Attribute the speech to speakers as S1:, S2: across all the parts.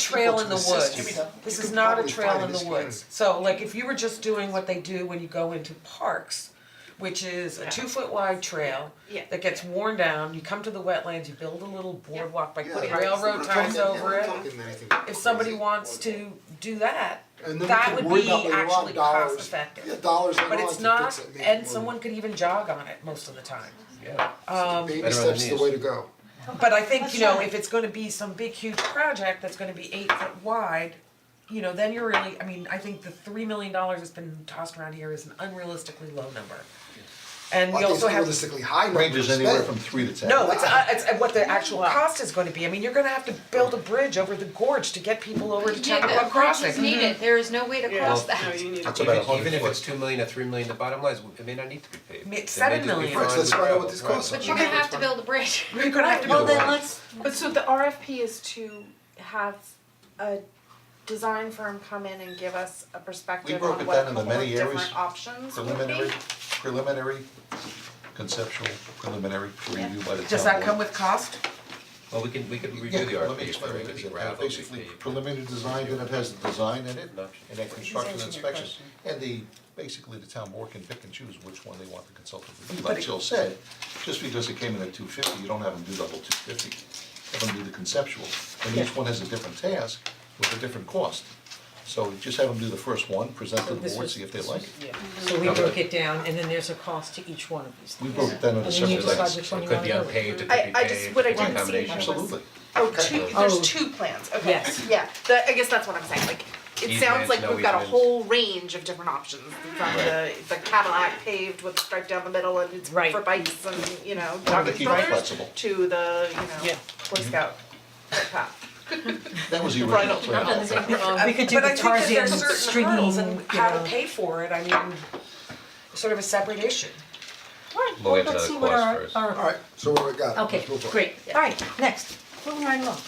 S1: trail in the
S2: Equal to the
S1: woods.
S2: system. You mean,
S1: This
S2: you
S1: is
S2: could
S1: not a
S2: probably
S1: trail
S2: find
S1: in
S2: this
S1: the
S2: kind
S1: woods.
S2: of-
S1: So like if you were just doing what they do when you go into parks, which is a two foot wide trail
S3: Yeah.
S1: that gets worn down, you come to the wetlands, you build a little boardwalk by
S2: Yeah,
S1: putting
S2: right.
S1: railroad
S2: We're
S1: ties
S2: talking-
S1: over
S2: we're
S1: it.
S2: talking anything
S1: If somebody
S2: crazy.
S1: wants to do that,
S2: And then we
S1: that
S2: can
S1: would
S2: worry
S1: be
S2: about later on
S1: actually
S2: dollars.
S1: cost effective.
S2: Yeah, dollars and
S1: But
S2: all
S1: it's
S2: to
S1: not,
S2: fix it, make it
S1: and
S2: work.
S1: someone um, could even jog on it most of the time.
S4: Yeah.
S2: Baby
S4: Better on the
S2: steps the
S4: knees.
S2: way to go.
S1: But I think, you know, if it's gonna be some big huge project that's gonna be eight foot wide, you know, then you're really, I mean, I think the three million dollars that's been tossed around here is an unrealistically low number. And we
S2: I think it's
S1: also have.
S2: realistically high number
S5: Ranges
S2: to
S5: anywhere
S2: spend.
S5: from three to ten.
S1: No, it's, uh, it's uh, what the actual cost is gonna be, I mean, you're gonna have to build a bridge over the gorge to get people over to
S6: Yeah,
S1: Chappaqua
S6: but
S1: Crossing. Mm-hmm.
S6: bridges need it, there is no way to cross that.
S5: That's about a
S4: Even
S5: hundred
S4: even if it's
S5: foot.
S4: two million or three million, the bottom line is, it may not need to be paved.
S1: It's
S4: It may
S1: seven
S4: just be
S1: million.
S4: fine
S2: Right, so that's
S4: with
S2: why
S4: gravel.
S2: what this
S4: Right.
S2: costs
S6: But you're gonna have to build a bridge.
S1: You're gonna have to
S5: Either
S1: build
S5: way.
S1: that.
S3: But so the RFP is to have a design firm come in and give us a perspective
S5: broke
S3: on
S5: it
S3: what a
S5: down into
S3: couple of
S5: many areas,
S3: different options would be.
S5: Preliminary, preliminary, conceptual, preliminary, review by the town board.
S1: Does that come with cost?
S4: Well, we can, we could review the
S5: Yeah, let me
S4: RFP
S5: explain
S4: for
S5: what
S4: it
S5: it
S4: to be
S5: is. It has
S4: gravel, it could be
S5: Basically,
S4: paved.
S5: preliminary design, then it has the design in it,
S4: No.
S5: and then construction
S1: answering your
S5: inspections. And the, basically, the town board can pick and choose which one they want the consultant to do. Like Jill said, just because it came in at two fifty, you don't have them do the whole two fifty. Have them do the conceptual, and each one has a different task with a different cost. So just have them do the first one, present to the board, see if they like it.
S7: So we broke it down, and then there's a cost to each one of these
S5: We
S7: things.
S5: broke it down into
S7: And then you
S5: separate
S7: decide
S5: items.
S7: which one
S4: It
S7: you
S4: could
S7: wanna
S4: be
S7: do.
S4: unpaved, it could be
S3: I-
S4: paved,
S3: I just-
S4: it
S3: what I
S4: could be a
S3: didn't see
S4: combination.
S3: was-
S5: Absolutely.
S3: Oh, two,
S7: Oh.
S3: there's two plans, okay,
S7: Yes.
S3: yeah, the, I guess that's what I'm saying, like, it sounds
S4: Easements,
S3: like
S4: no
S3: we've got a
S4: easements.
S3: whole range of different options, from the, the Cadillac paved with a stripe down the middle and it's
S7: Right.
S3: for bikes and, you know,
S5: Wanted to
S3: dog and
S5: keep it
S3: strollers,
S5: flexible.
S3: to the, you know,
S7: Yeah.
S3: Boy Scout path.
S5: That was the original plan.
S7: We could do
S1: But
S7: the
S1: I think that
S7: Tarzan
S1: there's certain
S7: stringing,
S1: hurdles
S7: you
S1: and how to
S7: know.
S1: pay for it, I mean, sort of a separate issue.
S7: Alright,
S4: We'll
S7: well,
S4: get to
S7: let's
S4: the
S7: see what
S4: cost
S7: our,
S4: first.
S7: our-
S2: Alright, so what we got,
S7: okay,
S2: let's move on.
S7: great, alright, next, moving right along,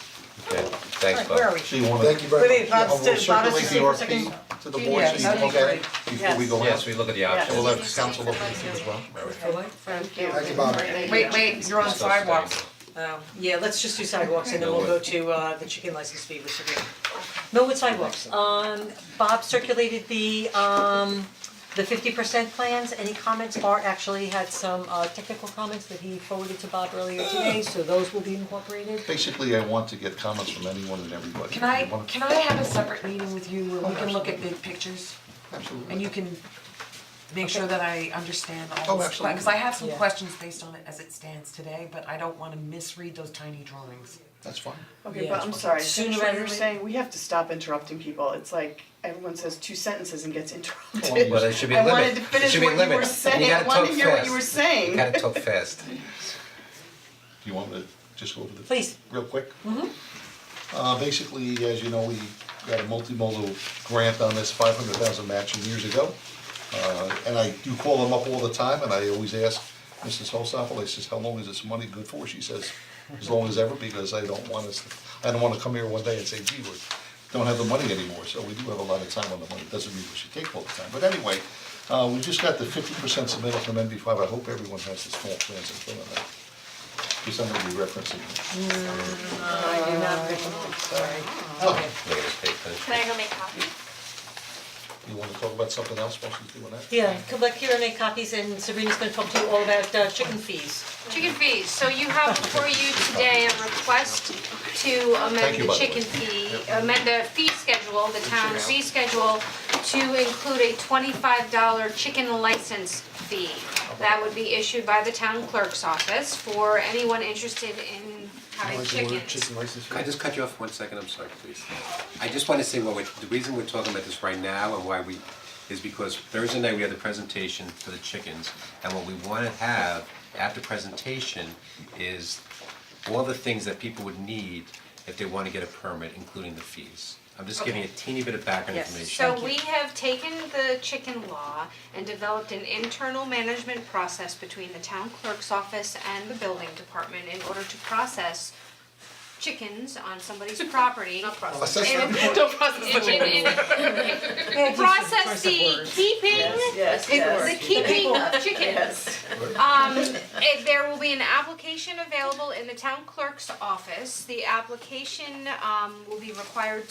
S4: Okay, thanks,
S7: alright,
S4: Bob.
S7: where are we?
S5: So you wanna.
S2: Thank you very much.
S7: Wait, Bob's
S5: We'll
S7: still- Bob is
S5: circulate the
S7: still second.
S5: RFP to the board so you
S7: Yeah,
S5: can look at it before we go out.
S4: Yes, we look at the
S5: And
S4: options.
S5: we'll have council look at it as well.
S2: Thank you, Bob.
S1: Wait, wait, you're on
S4: Stuff's
S1: sidewalks.
S4: staying.
S1: Um,
S7: Yeah, let's just do sidewalks and then we'll go to uh the chicken license fee which is Millwood sidewalks, um Bob circulated the um the fifty percent plans, any comments, Art actually had some uh technical comments that he forwarded to Bob earlier today, so those will be incorporated.
S5: Basically, I want to get comments from anyone and everybody.
S1: Can I,
S5: You wanna-
S1: can I have a separate meeting with you where we can look at big pictures?
S5: Absolutely.
S1: And you can make sure that I understand
S5: Oh,
S1: all this,
S5: absolutely.
S1: because I have some
S7: Yeah.
S1: questions based on it as it stands today, but I don't wanna misread those tiny drawings.
S5: That's fine.
S8: Okay,
S7: Yeah.
S8: but I'm sorry,
S7: Sooner
S8: essentially
S7: rather
S8: you're
S7: than-
S8: saying we have to stop interrupting people, it's like everyone says two sentences and gets interrupted.
S5: Well,
S4: Well, there should be a
S8: I
S4: limit.
S8: wanted to
S4: There
S8: finish
S4: should be a
S8: what you
S4: limit.
S8: were saying, I
S4: gotta
S8: wanted
S4: talk
S8: to hear what
S4: fast.
S8: you were saying.
S4: You gotta talk fast.
S5: Do you want me to just go over the?
S7: Please.
S5: Real quick? Uh, basically, as you know, we got a multimodal grant on this five hundred thousand matching years ago. Uh, and I do call them up all the time, and I always ask Mrs. Holstoffel, I says, how long is this money good for? She says, as long as ever, because I don't want us, I don't wanna come here one day and say, gee, we don't have the money anymore, so we do have a lot of time on the money, doesn't mean we should take all the time, but anyway, uh, we just got the fifty percent submittal from NB five, I hope everyone has the small plans in front of them. Because I'm gonna be referencing,
S7: I do not sorry. Okay,
S4: Look at this page, huh?
S6: Can I go make coffee?
S5: you wanna talk about something else while she's doing that?
S7: yeah, come back here and make copies and Sabrina's gonna talk to you all about uh chicken fees.
S6: Chicken fees, so you have before you today a request to
S5: Thank
S6: amend
S5: you,
S6: the
S5: by the way.
S6: chicken fee, amend the fee schedule, the town fee schedule to include a twenty-five dollar chicken license fee. That would be issued by the town clerk's office for anyone interested in having chickens.
S4: Can I just cut you off for one second, I'm sorry, please. I just wanna say, well, we- the reason we're talking about this right now and why we, is because Thursday night we had the presentation for the chickens. And what we wanna have after presentation is all the things that people would need if they wanna get a permit, including the fees. I'm just giving a teeny bit of background
S7: Yes.
S4: information.
S6: So we have taken the chicken law and developed an internal management process between the town clerk's office and the building department in order to process chickens on somebody's property.
S5: Assessment report.
S8: Don't process the
S6: And- and- and process the keeping,
S8: Yes,
S6: the
S8: yes.
S6: keeping of chickens.
S8: Yes.
S6: Um, eh, there will be an application available in the town clerk's office. The application, um, will be required